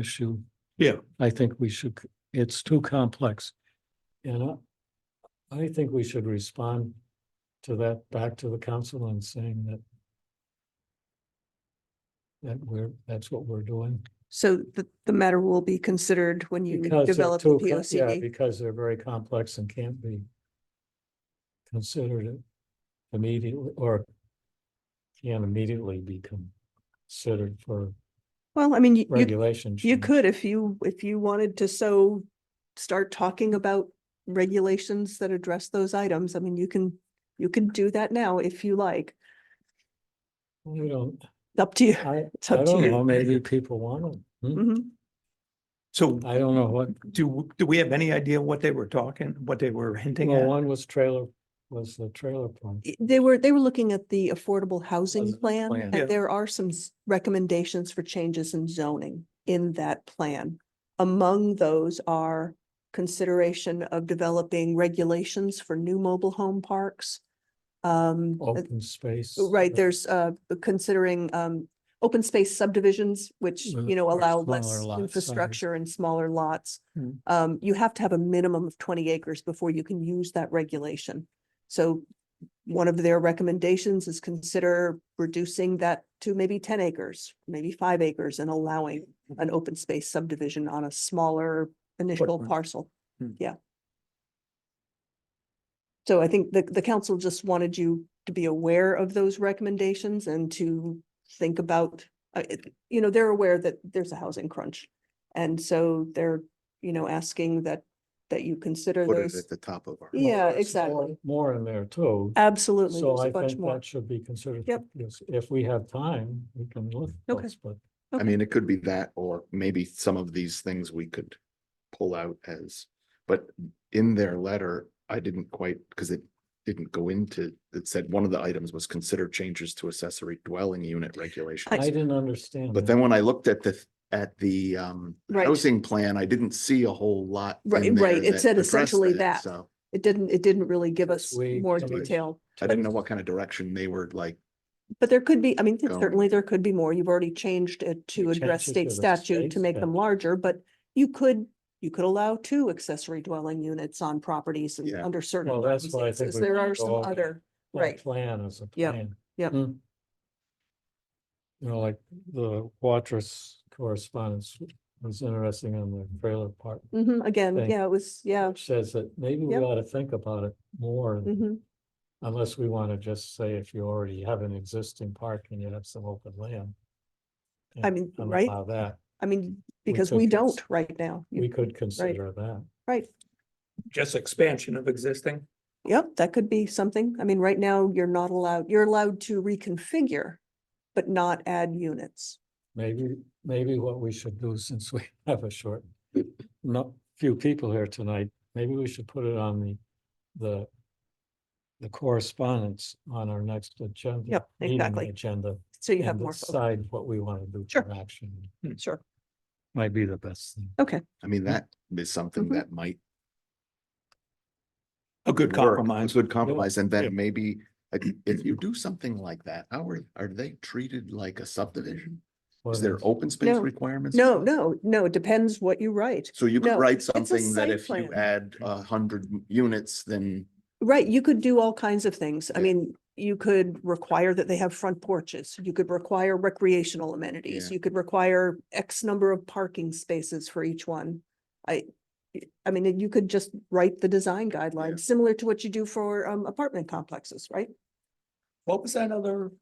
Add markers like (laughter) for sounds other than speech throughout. issue. Yeah. I think we should, c- it's too complex. And I, I think we should respond to that back to the council and saying that that we're, that's what we're doing. So the, the matter will be considered when you Because they're develop the too co- P O C yeah, D. Because they're very complex and can't be considered immediately or can immediately be considered for Well, I mean, you- you, regulation. you change. could, if you, if you wanted to so start talking about regulations that address those items, I mean, you can, you can do that now if you like. I don't, Up to you. I, It's I up to don't you. know, maybe people want them. Hmm? Mhm. So I don't know what, do, do we have any idea what they were talking, what they were hinting well, at? one was trailer, was the trailer park. I- They were, they were looking at the affordable housing Housing plan, plan. Yeah. and there are some s- recommendations for changes in zoning in that plan. Among those are consideration of developing regulations for new mobile home parks. Um, uh, open space. right, uh, there's uh considering um open space subdivisions, which, Mm, you know, or allow smaller less lot size. infrastructure and smaller lots. Mm. Um, you have to have a minimum of twenty acres before you can use that regulation. So one of their recommendations is consider reducing that to maybe ten acres, maybe five acres and allowing an open space subdivision on a smaller initial Footprint. parcel. Hmm. Yeah. So I think the, the council just wanted you to be aware of those recommendations and to think about, uh, it- you know, they're aware that there's a housing crunch. And so they're, you know, asking that, that you consider put it at those. the top of our. Yeah. there's exactly. more- More in there too. Absolutely, So there's I a bunch think more. that should be considered. Yep. Yes, If we have time, we can look. at Okay. those, But I mean, it could be that, or maybe some of these things we could pull out as, but in their letter, I didn't quite, because it didn't go into, it said one of the items was consider changes to accessory dwelling unit I I regulations. see. didn't understand. But that. then when I looked at the, at the um Right. housing plan, I didn't see a whole lot. in Right, there right. It that said addressed essentially that. So It didn't, it didn't really give us We- more Somebody- detail. I didn't know what kind of direction they were like, But there could be, I mean, Go. certainly there could be more. You've already changed it You to address changed it state to the statute state to make them statute. larger, but you could, you could allow two accessory dwelling units on properties and Yeah. under certain Well, that's why I think circumstances. we There should are go some over other, Well, right. Plan is a Yep, plan. yep. Hmm. You know, like the Watrous correspondence was interesting on the trailer part. Mhm, again, thing. yeah, it was, yeah. which Says that maybe we Yep. ought to think about it more, mhm. unless we want to just say if you already have an existing park and you have some open land. I and- mean, and right? allow that, I mean, because could we cons- don't right now. You- we could consider that. Right. Just expansion of existing? Yep, that could be something. I mean, right now, you're not allowed, you're allowed to reconfigure, but not add units. Maybe, maybe what we should do, (laughs) since we have a short, not few people here tonight, maybe we should put it on the, the. The correspondence on our next agenda. Yep, meeting exactly. Agenda. So you have and more, fo- Decide what we want to do Sure. for action, sure. might be the best thing. I Mm-hmm. mean, that is something Mhm. that might A good work, a compromise. Good compromise, and Yeah. then maybe like, if you do something like that, how are, are they treated like a subdivision? Is there open space No. requirements? No, no, no, it depends what you write. So you could no, write a something that site if you plan. add a hundred units, then Right, you could do all kinds of things. I Yeah. mean, you could require that they have front porches. You could require recreational amenities. Yeah. You could require X number of parking spaces for each one. I, I mean, you could just write the design guidelines, similar to what you do for um, apartment complexes, right? What was that other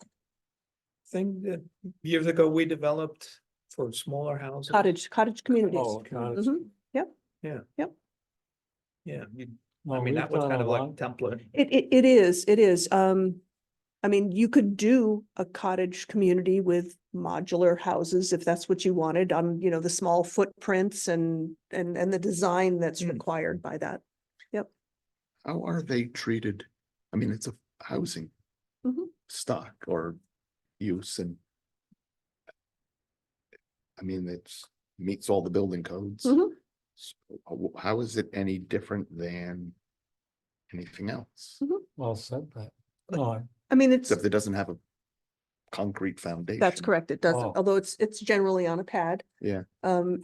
thing that years ago we developed for smaller houses? Cottage, cottage communities. Oh, cottage. Mhm. Yeah, you- I mean, that was kind of like a template. It, it, it is, it is. Um, I mean, you could do a cottage community with modular houses if that's what you wanted on, you know, the small footprints and, and, and the design that's Mm. required by that. how are they treated? I mean, it's a housing Mhm. stock or use and I mean, it's meets all the building codes. Mhm. S- w- How is it any different than anything else? Well said, that. No, I- I mean, it's, Except it doesn't have a concrete foundation. that's correct. It doesn't, Oh. although it's, it's generally on a pad. Yeah. Um,